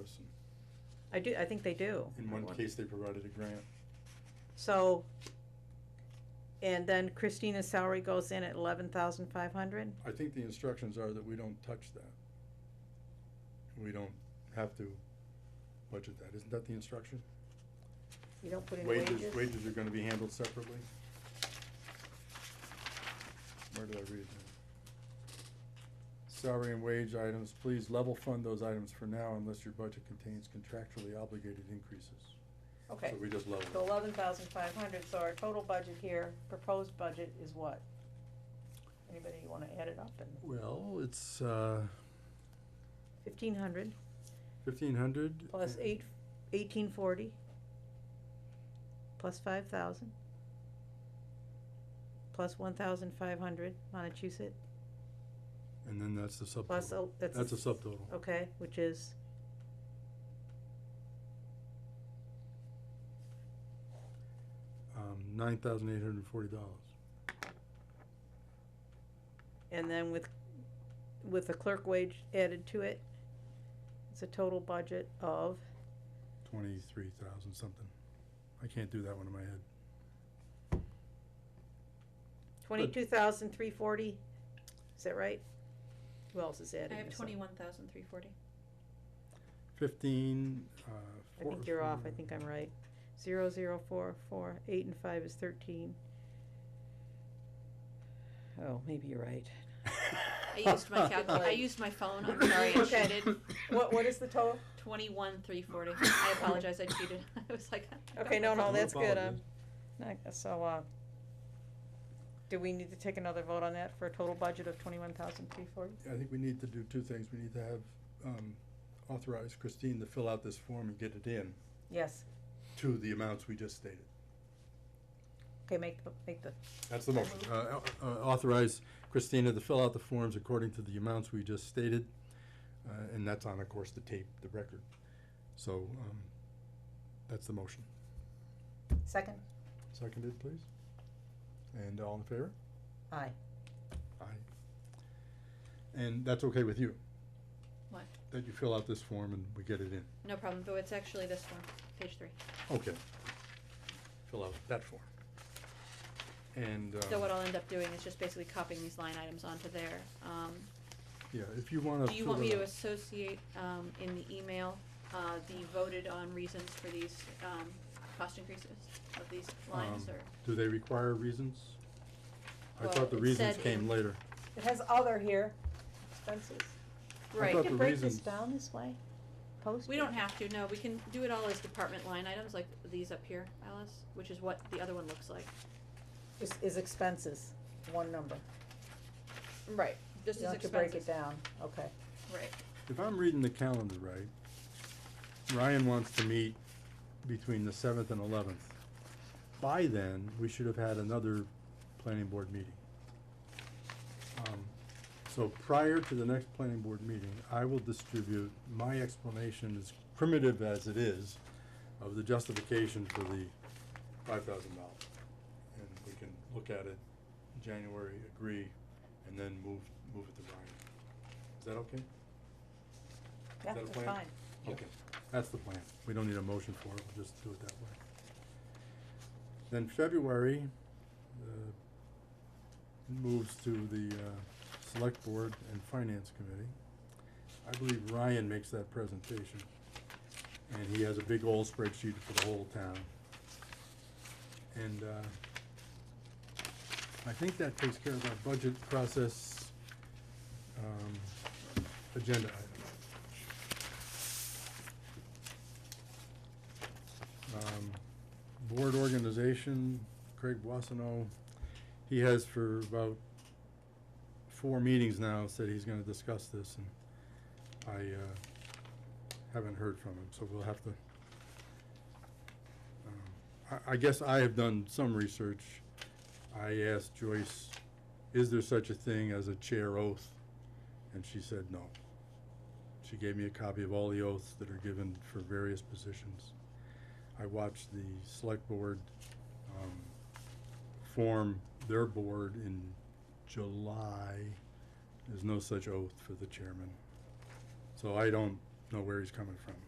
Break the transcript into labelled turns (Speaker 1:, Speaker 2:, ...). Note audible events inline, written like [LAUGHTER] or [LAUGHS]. Speaker 1: this, and
Speaker 2: I do, I think they do.
Speaker 1: in one
Speaker 3: Right.
Speaker 1: case, they provided a grant.
Speaker 2: So, and then Christina's salary goes in at eleven thousand five hundred?
Speaker 1: I think the instructions are that we don't touch that. We don't have to budget that, isn't that the instruction?
Speaker 2: You don't put in
Speaker 1: Wages,
Speaker 2: wages?
Speaker 1: wages are gonna be handled separately? Where did I read that? Salary and wage items, please level fund those items for now unless your budget contains contractually obligated increases.
Speaker 2: Okay,
Speaker 1: So we just level.
Speaker 2: so eleven thousand five hundred, so our total budget here, proposed budget is what? Anybody wanna add it up and
Speaker 1: Well, it's, uh,
Speaker 2: fifteen hundred
Speaker 1: fifteen hundred.
Speaker 2: plus eight, eighteen forty plus five thousand plus one thousand five hundred Montechusett
Speaker 1: And then that's the
Speaker 2: plus,
Speaker 1: subtotal.
Speaker 2: oh, that's.
Speaker 1: That's a subtotal.
Speaker 2: Okay, which is?
Speaker 1: Um, nine thousand eight hundred and forty dollars.
Speaker 2: And then with, with the clerk wage added to it, it's a total budget of,
Speaker 1: Twenty-three thousand something. I can't do that one in my head.
Speaker 2: twenty-two thousand three forty, is that right? Who else is adding
Speaker 4: I have
Speaker 2: this up?
Speaker 4: twenty-one thousand three forty.
Speaker 1: Fifteen, uh.
Speaker 2: I
Speaker 1: four-
Speaker 2: think you're off, I
Speaker 1: four-
Speaker 2: think I'm right. Zero, zero, four, four, eight and five is thirteen. Oh, maybe you're right.
Speaker 4: [LAUGHS] I used my calculator. I used my phone. I'm sorry, I
Speaker 2: Okay.
Speaker 4: cheated.
Speaker 2: What, what is the total?
Speaker 4: Twenty-one three forty. I apologize. I cheated. [LAUGHS] I was like. I
Speaker 2: Okay, no,
Speaker 4: got my
Speaker 2: no,
Speaker 4: phone.
Speaker 2: that's good, um,
Speaker 1: apologies.
Speaker 2: [LAUGHS] not- so, uh, do we need to take another vote on that for a total budget of twenty-one thousand three forty?
Speaker 1: I think we need to do two things. We need to have, um, authorize Christine to fill out this form and get it in
Speaker 2: Yes,
Speaker 1: to the amounts we just stated.
Speaker 2: okay, make, the- make the
Speaker 1: That's the motion. Uh, au- uh, authorize Christina to fill out the forms according to the amounts we just stated, uh, and that's on, of course, the tape, the record. So, um, that's the motion.
Speaker 2: second.
Speaker 1: Seconded, please. And all in favor?
Speaker 2: Aye.
Speaker 1: Aye. And that's okay with you?
Speaker 4: What?
Speaker 1: That you fill out this form and we get it in.
Speaker 4: No problem, though. It's actually this one, page three.
Speaker 1: Okay. Fill out that form. And, uh,
Speaker 4: So what I'll end up doing is just basically copying these line items onto there. Um,
Speaker 1: yeah, if you wanna.
Speaker 4: do you
Speaker 1: fill
Speaker 4: want me
Speaker 1: it
Speaker 4: to
Speaker 1: out-
Speaker 4: associate, um, in the email, uh, the voted on reasons for these, um, cost increases of these lines
Speaker 1: Um,
Speaker 4: or?
Speaker 1: Do they require reasons? I
Speaker 4: Well,
Speaker 1: thought the
Speaker 4: it
Speaker 1: reasons
Speaker 4: said
Speaker 1: came
Speaker 4: in-
Speaker 1: later.
Speaker 2: It has other here, expenses.
Speaker 1: I
Speaker 4: Right,
Speaker 1: thought
Speaker 2: We
Speaker 1: the
Speaker 2: can break this
Speaker 1: reasons-
Speaker 2: down this way, post.
Speaker 4: we don't have to, no, we can do it all as department line items like these up here, Alice, which is what the other one looks like.
Speaker 2: Is, is expenses, one number.
Speaker 4: Right. Just
Speaker 2: You
Speaker 4: as
Speaker 2: don't have to break it
Speaker 4: expenses,
Speaker 2: down, okay.
Speaker 4: right.
Speaker 1: If I'm reading the calendar right, Ryan wants to meet between the seventh and eleventh. By then, we should have had another planning board meeting. Um, So prior to the next planning board meeting, I will distribute my explanation, as primitive as it is, of the justification for the five thousand dollars. And we can look at it in January, agree, and then move, move it to Ryan. Is that okay?
Speaker 2: Yeah,
Speaker 1: that a
Speaker 2: that's
Speaker 1: plan?
Speaker 2: fine.
Speaker 1: Okay, that's the plan. We don't need a motion for it, we'll just do it that way. Then February, uh, moves to the, uh, Select Board and Finance Committee. I believe Ryan makes that presentation, and he has a big old spreadsheet for the whole town. And, uh, I think that takes care of our budget process, um, agenda item. Um, board organization, Craig Wassano, he has for about four meetings now said he's gonna discuss this and I, uh, haven't heard from him, so we'll have to. um, I, I guess I have done some research. I asked Joyce, is there such a thing as a chair oath? And she said no. She gave me a copy of all the oaths that are given for various positions. I watched the select board, um, form their board in July. There's no such oath for the chairman. So I don't know where he's coming from.